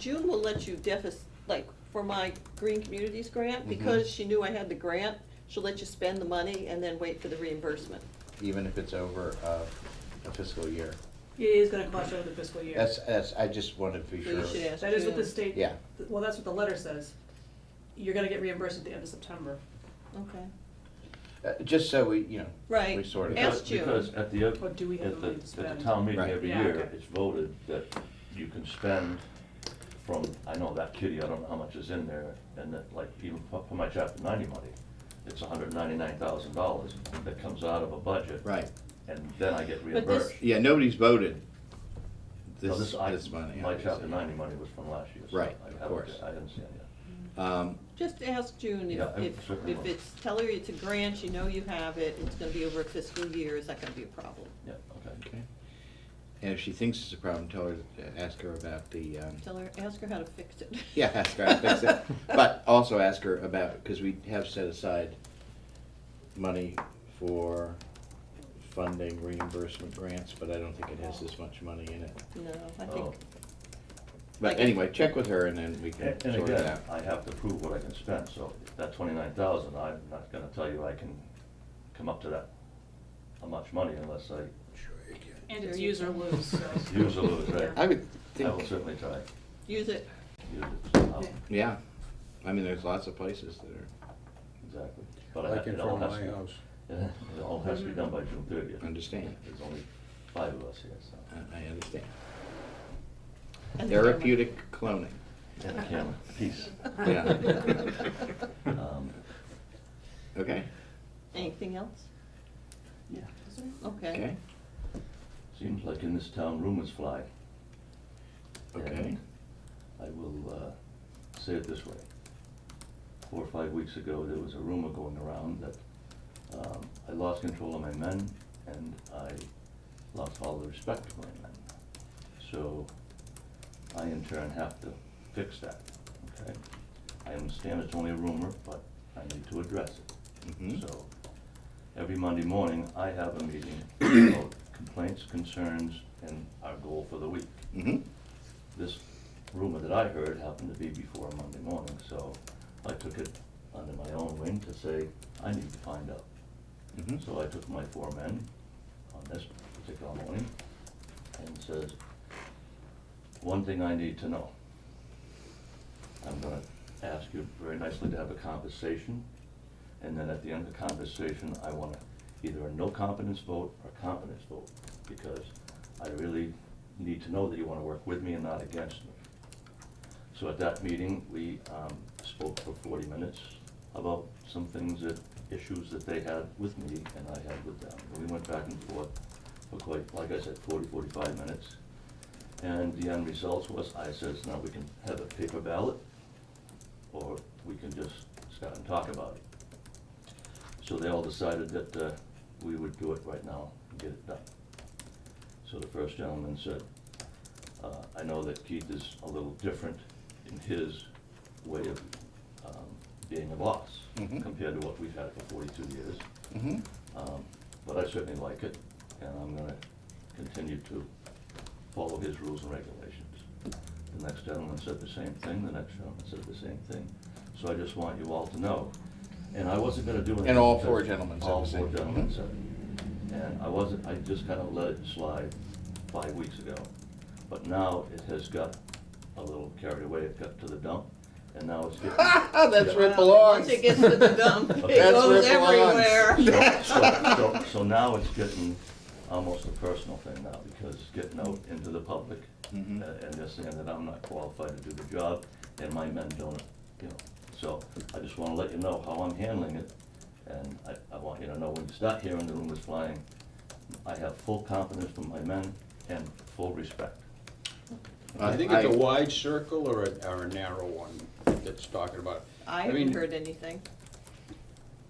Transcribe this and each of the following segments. June will let you deficit, like, for my Green Communities Mm-hmm. grant, because she knew I had the grant, she'll let you spend the money and then wait for the reimbursement. even if it's over uh, a fiscal year. It is gonna cost you over the fiscal year. That's, that's, I just wanted to be So you sure. should ask That is what the June. state. Yeah. Well, that's what the letter says. You're gonna get reimbursed at the end of September. Okay. Uh, Just so we, you know. Right. We sort of, Ask- Because- June. Because at the, Or at do we have the the, money to at spend? the town meeting Right. every Yeah, year, okay. it's voted that you can spend from, I know that kitty, I don't know how much is in there, and that, like, even for for my chapter ninety money, it's hundred ninety-nine thousand dollars that comes out of a budget. Right. And then I get But this- reimbursed. Yeah, nobody's voted No, this, I- this money. My obviously. chapter ninety money was from last year. so Right, I of haven't- course. I haven't seen it yet. Um, Just ask June Yeah, if, I if, certainly if will. it's, tell her it's a grant, you know you have it, it's gonna be over a fiscal year, is that gonna be a problem? Yeah, okay. okay. And if she thinks it's a problem, tell her, uh, ask her about the, um, Tell her, ask her how to fix it. yeah, ask her, how to fix it. But also ask her about, because we have set aside money for funding reimbursement grants, but I don't think it has this much money in it. No, I Oh. think, But anyway, check with her and then we can And and sort it again, out. I have to prove what I can spend, so that twenty-nine thousand, I'm not gonna tell you I can come up to that, how much money unless I And Sure it's you use or can. lose, so. use or lose, right? I would I will think, certainly try. use it, Use it somehow. Yeah. yeah, I mean, there's lots of places that are, Exactly. But I Like have, in it front all of has my to, house. it all has to be done by June thirtieth. Understand. There's only five of us here, so, I- I understand. And the camera. Therapeutic cloning. and the camera, peace. Yeah. Um, Okay, anything else? Yeah. Okay. okay, Seems like in this town rumors fly. okay. And I will uh, say it this way. Four or five weeks ago, there was a rumor going around that um, I lost control of my men and I lost all the respect for my men. So I in turn have to fix that, okay? I understand it's only a rumor, but I need to address it. Mhm. So, every Monday morning, I have a meeting about complaints, concerns, and our goal for the week. Mhm. This rumor that I heard happened to be before Monday morning, so I took it under my own wing to say, I need to find out. Mhm. Mm-hmm. So I took my four men on this particular morning and says, one thing I need to know. I'm gonna ask you very nicely to have a conversation, and then at the end of the conversation, I wanna either a no confidence vote or a confidence vote, because I really need to know that you wanna work with me and not against me. So at that meeting, we um, spoke for forty minutes about some things that, issues that they had with me and I had with them. And we went back and forth for quite, like I said, 40, 45 minutes. And the end result was, I says, now we can have a paper ballot, or we can just start and talk about it. So they all decided that uh, we would do it right now and get it done. So the first gentleman said, uh, I know that Keith is a little different in his way of um, being a boss Mhm. compared to what we've had for forty-two years. Mhm. Um, But I certainly like it, and I'm gonna continue to follow his rules and regulations. The next gentleman said the same thing, the next gentleman said the same thing. So I just want you all to know, and I wasn't gonna do anything. And all because four gentlemen said the same All thing. four gentlemen said. it. And I wasn't, I just kinda let it slide five weeks ago. But now it has got a little carried away, it got to the dump, and now it's getting. Oh, That's where Once it belongs. it gets to the dump, it Okay. That's where goes it belongs. everywhere. So- So, so, so now it's getting almost a personal thing now, because it's getting out into the public, uh, and Mhm. they're saying that I'm not qualified to do the job, and my men don't, you know. So I just wanna let you know how I'm handling it, and I, I want you to know when you start hearing the rumors flying, I have full confidence from my men and full respect. I think it's a wide circle or a, or a narrow one that's talking about. I mean, haven't heard anything.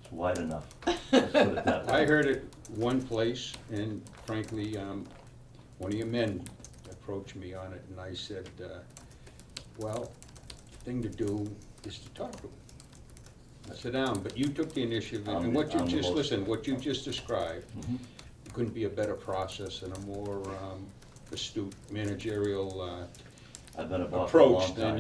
It's wide enough, let's put it that way. I heard it one place, and frankly, um, one of your men approached me on it, and I said, uh, well, thing to do is to talk to him. I Sit down, but you took the initiative, I'm and the- what you I'm the just, most- Oh. listen, what you just described, Mhm. couldn't be a better process and a more um, astute managerial uh, I've been a boss for a long approach time. than